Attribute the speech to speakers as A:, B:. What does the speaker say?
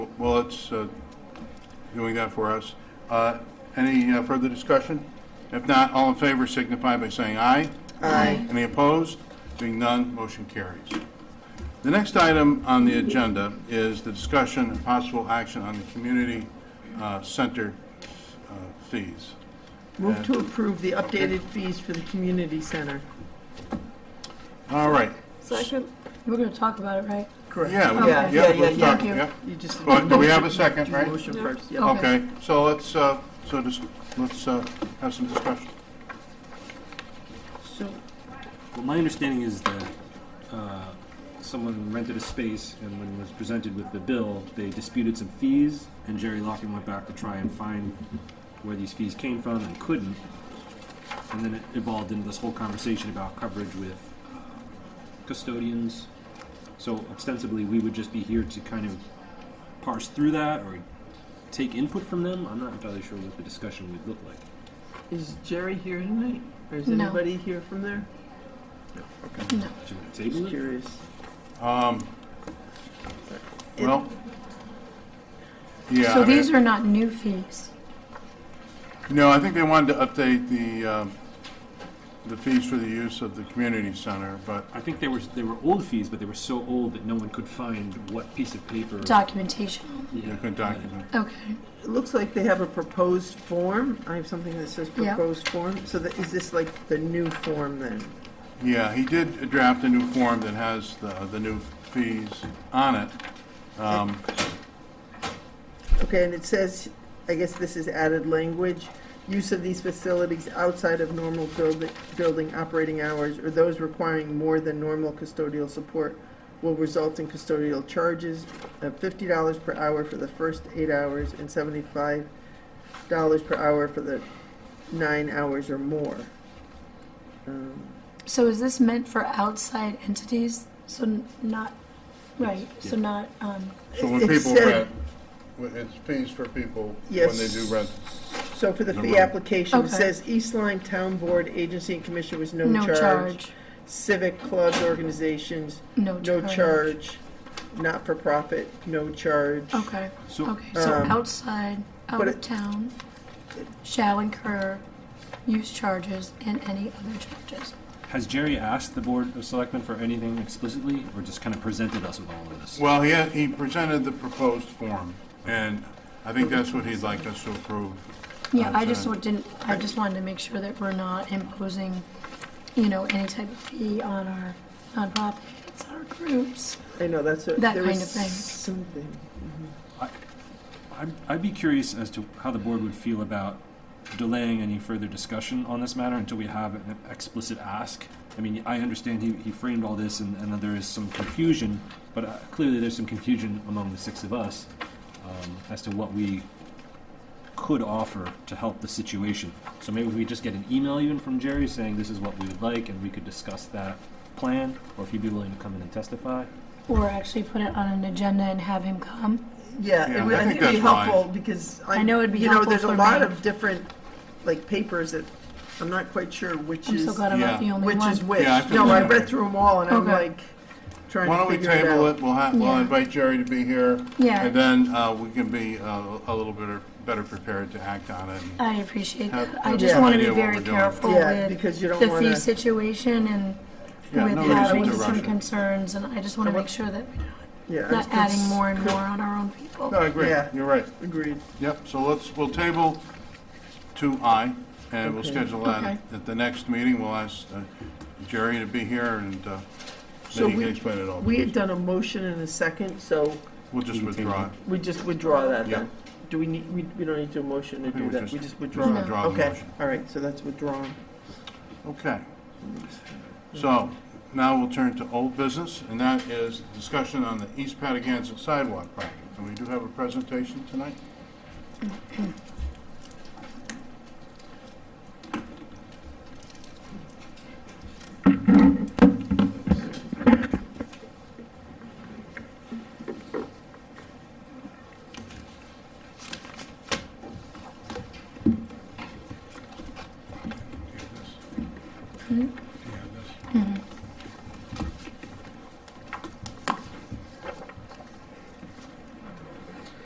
A: Well, it's uh, doing that for us. Uh, Any uh, further discussion? If not, all in favor signify by saying aye.
B: Aye.
A: Any opposed? Being none, motion carries. The next item on the agenda is the discussion and possible action on the community uh, center uh, fees.
B: Move to approve the updated fees for the community center.
A: All right.
C: Second. We're going to talk about it, right?
B: Correct.
A: Yeah, we-
C: Okay.
A: yeah,
B: Yeah,
A: let's
B: yeah,
A: talk,
C: yeah.
A: yeah.
B: You just.
A: Well, do we have a second,
B: Do
A: right?
B: Motion
C: Yeah.
B: first,
C: Oh.
B: yeah.
C: Okay.
A: Okay, so let's, uh, so just, let's uh, have some discussion.
B: So,
D: Well, my understanding is that uh, someone rented a space, and when was presented with the bill, they disputed some fees, and Jerry Locken went back to try and find where these fees came from and couldn't. And then it evolved into this whole conversation about coverage with uh, custodians. So ostensibly, we would just be here to kind of parse through that or take input from them. I'm not entirely sure what the discussion would look like.
B: is Jerry here tonight? Or is
C: No.
B: anybody here from there?
D: Should we
B: Just
D: table it?
B: curious.
A: Um,
B: It-
A: Well, yeah,
C: So
A: I mean,
C: these are not new fees.
A: no, I think they wanted to update the, um, the fees for the use of the community center, but,
D: I think they were they were old fees, but they were so old that no one could find what piece of paper.
C: Documentation.
D: Yeah.
A: you could document.
C: Okay.
B: It looks like they have a proposed form. I have something that says
C: Yeah.
B: proposed form. So that, is this like the new form then?
A: Yeah, he did draft a new form that has the, the new fees on it. Um,
B: Okay, and it says, I guess this is added language, use of these facilities outside of normal build- building operating hours or those requiring more than normal custodial support will result in custodial charges of fifty dollars per hour for the first eight hours and seventy-five dollars per hour for the nine hours or more. Um,
C: So is this meant for outside entities? So n- not, right, so
D: yeah.
C: not, um,
A: So when
B: It
A: people
B: said-
A: rent, when- it's fees for people when they do
B: Yes.
A: rent.
B: So for the
A: No
B: fee
A: rent.
B: application, it
C: Okay.
B: says East Line Town Board, agency and commission was no
C: no
B: charge.
C: charge,
B: Civic clubs, organizations,
C: no
B: No
C: charge.
B: charge, not for profit, no charge.
C: Okay,
D: So
C: okay, so
B: Um,
C: outside, out
B: but
C: of
B: it-
C: town, shall incur use charges and any other charges.
D: has Jerry asked the board of selectmen for anything explicitly, or just kind of presented us with all of this?
A: Well, he, had- he presented the proposed form, and I think that's what he'd like us to approve.
C: Yeah, I just
A: Outside.
C: didn't, I just wanted to make sure that we're not imposing, you know, any type of fee on our nonprofits, our groups.
B: I know, that's what,
C: That
B: there
C: kind
B: was
C: of thing.
B: something.
D: I'd, I'd be curious as to how the board would feel about delaying any further discussion on this matter until we have an explicit ask. I mean, I understand he, he framed all this and, and that there is some confusion, but uh, clearly there's some confusion among the six of us um, as to what we could offer to help the situation. So maybe if we just get an email even from Jerry saying this is what we would like and we could discuss that plan, or if he'd be willing to come in and testify.
C: Or actually put it on an agenda and have him come.
B: Yeah,
A: Yeah,
B: it would,
A: I
B: I
A: think
B: think it'd be
A: that's fine.
B: helpful, because I,
C: I know it'd be
B: you know,
C: helpful
B: there's a
C: for
B: lot
C: me.
B: of different, like, papers that, I'm not quite sure which
C: I'm
B: is,
C: so glad I'm not
A: Yeah.
C: the only
B: which
C: one.
B: is which.
A: Yeah, I feel
B: No, I
A: that way.
B: read through them all, and I'm
C: Okay.
B: like, trying
A: Why don't
B: to
A: we
B: figure it
A: table
B: out.
A: it, we'll have, we'll
C: Yeah.
A: invite Jerry to be here.
C: Yeah.
A: And then, uh, we can be, uh, a little bit, better prepared to act on it.
C: I appreciate
A: Have-
C: that. I
A: have
C: just
B: some
C: want to
A: idea
C: be
A: what
C: very
A: we're doing.
C: careful
B: Yeah,
C: with
B: because you don't
C: the fee
B: wanna,
C: situation and
A: Yeah,
C: with
A: no
C: having
A: reason to rush
C: some
A: it.
C: concerns, and I just want to
B: And what-
C: make sure that we're
B: yeah.
C: not
B: it's-
C: adding more and more on our own people.
A: No, I agree,
B: Yeah.
A: you're right,
B: Agreed.
A: yep, so let's, we'll table two I, and we'll
B: Okay.
A: schedule that
C: Okay.
A: at the next meeting, we'll ask uh, Jerry to be here, and, uh,
B: So
A: then he can
B: we,
A: explain it all.
B: we had done a motion and a second, so
A: We'll just withdraw it.
B: we just withdraw that
A: Yeah.
B: then. Do we need, we, we don't need to do a motion to
A: think
B: do
A: we
B: that,
A: just-
B: we just
A: Just
B: withdraw it.
A: Withdraw the
B: Okay,
A: motion,
B: all right, so that's withdrawn.
A: okay. So, now we'll turn to old business, and that is discussion on the East Patagonia sidewalk project, and we do have a presentation tonight.